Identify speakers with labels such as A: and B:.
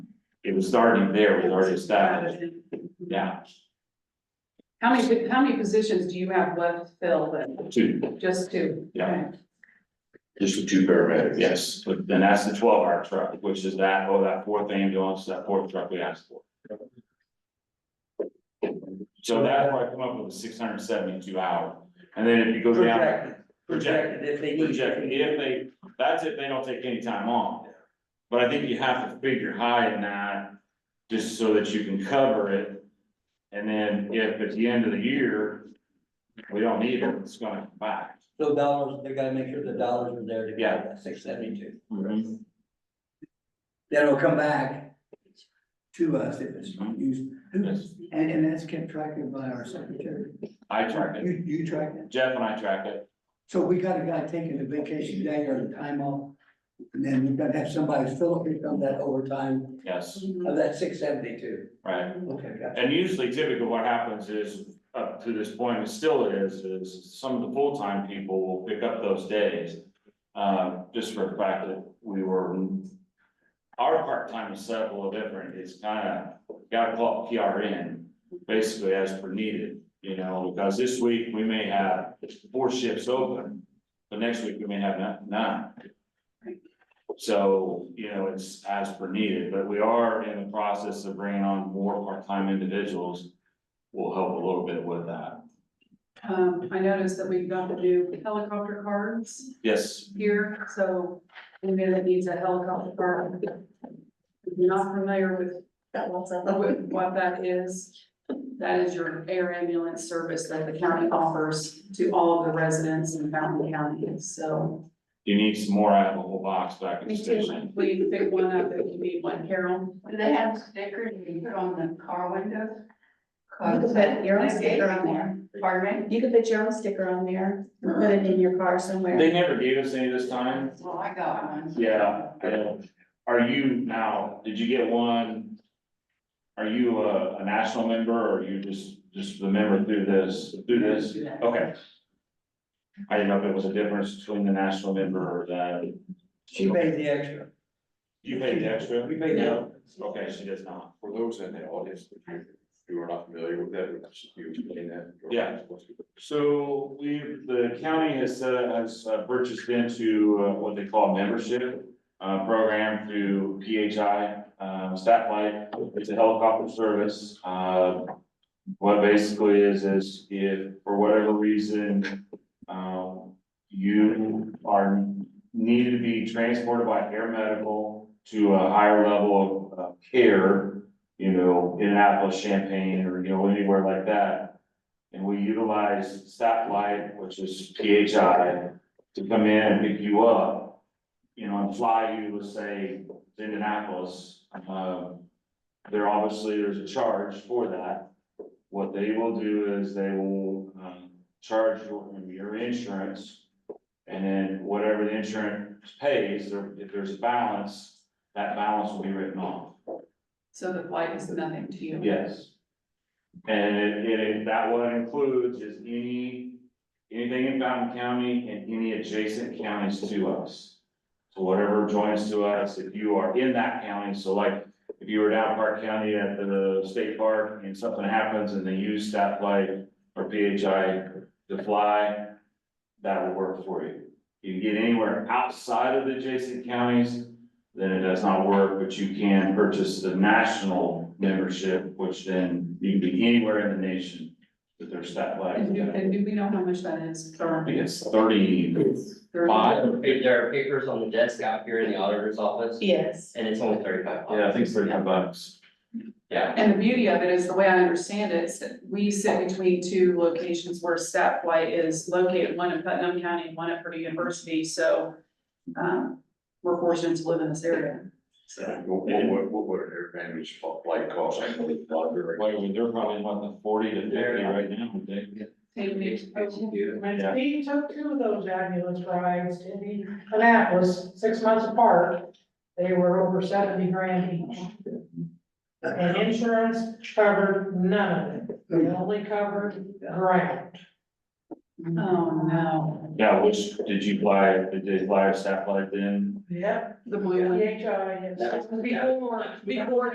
A: it was starting there, it was already established, yeah,
B: How many, how many positions do you have left to fill then?
A: two,
B: Just two?
A: Yeah.
B: Okay.
C: Just the two paramedics.
A: yes, but then that's the twelve hour truck, which is that, oh, that fourth ambulance, that fourth truck we asked for. So that's why I come up with the six hundred and seventy-two hour, and then if you go down.
D: Projected, projected if they need. to.
A: Projected, if they, that's if they don't take any time off. But I think you have to figure high in that, just so that you can cover it. And then if at the end of the year, we don't need it, it's gonna come back.
D: So dollars, they gotta make sure the dollars are there to
A: Yeah.
D: get that six seventy-two. Then it'll come back to us if it's
A: Mm-hmm.
D: used.
A: Yes.
E: And, and that's kept track of by our secretary.
A: I track it,
E: You, you track that?
A: Jeff and I track it,
E: So we got a guy taking a vacation day or a time off. And then we've got to have somebody fill in on that overtime
A: yes,
D: Of that six seventy-two.
A: right.
E: Okay, gotcha.
A: And usually typically what happens is, up to this point, and still it is, is some of the full-time people will pick up those days. Uh, just for the fact that we were, our part-time is set up a little different, it's kinda, gotta call it PRN, basically as per needed. You know, because this week we may have four shifts open, but next week we may have none- none. So, you know, it's as per needed, but we are in the process of bringing on more part-time individuals. Will help a little bit with that.
B: Um, I noticed that we've got the new helicopter cards
A: Yes,
B: here, so anybody that needs a helicopter card. If you're not familiar with
F: That one's up.
B: with what that is, that is your air ambulance service that the county offers to all of the residents in Fountain County, so.
A: you need some more. I have a whole box back at the
B: We do,
A: station.
B: we can pick one up if you need one, Carol.
G: Do they have stickers that you put on the car windows?
F: You can put your own
G: They gave
F: sticker
G: me
F: on there.
G: one. Pardon me?
F: You can put your own sticker on there, and put it in your car somewhere.
A: They never gave us any this time.
G: Well, I
B: Oh,
G: got one.
A: Yeah, I know. Are you now, did you get one? Are you a, a national member or are you just, just the member through this, through this? Okay. I didn't know if it was a difference between the national member or the,
D: She paid the extra.
A: you paid the extra?
D: We paid the.
A: Okay, she does not.
C: For those in the audience, if you are not familiar with that, you explain that.
A: Yeah. So we, the county has, uh, has uh, purchased into uh, what they call membership, uh, program through PHI, um, Stafflight. It's a helicopter service, uh, what basically is, is if for whatever reason, um, you are needed to be transported by air medical to a higher level of, of care, you know, Indianapolis, Champaign, or, you know, anywhere like that. And we utilize Stafflight, which is PHI, to come in and pick you up. You know, and fly you, let's say, to Indianapolis, um. There obviously, there's a charge for that. What they will do is they will, um, charge your, your insurance. And then whatever the insurance pays, or if there's a balance, that balance will be written off.
B: So the flight is nothing to you.
A: Yes. And it, it, that what it includes is any, anything in Fountain County and any adjacent counties to us. So whatever joins to us, if you are in that county, so like, if you were down Park County at the state park and something happens and they use staff light or PHI to fly, that will work for you. You can get anywhere outside of the adjacent counties, then it does not work, but you can purchase the national membership, which then you can be anywhere in the nation with their stat flag.
B: And do, and do we know how much that is
A: I
B: for?
A: think it's thirty,
B: Five.
H: There are papers on the desk out here in the auditor's office,
F: Yes.
H: and it's only thirty-five bucks.
A: yeah, I think it's thirty-five bucks.
H: Yeah,
B: And the beauty of it is, the way I understand it, is that we sit between two locations where Staff Flight is located, one in Putnam County and one at Purdue University, so. Um, we're fortunate to live in this area, so.
C: What, what, what- what would an air bandage flight cost? I know it's not very-
A: Wait, well, they're probably about the forty to fifty right now, would they?
B: Take me to-
I: When
A: Yeah.
I: Steve took two of those ambulance rides in Annapolis, six months apart, they were over seventy grand each. And insurance covered none of it, they only covered ground.
B: Oh, no,
A: Yeah, which, did you fly, did they fly a stat flag then?
I: Yep.
B: the blue one.
I: DHI is.
B: Before, before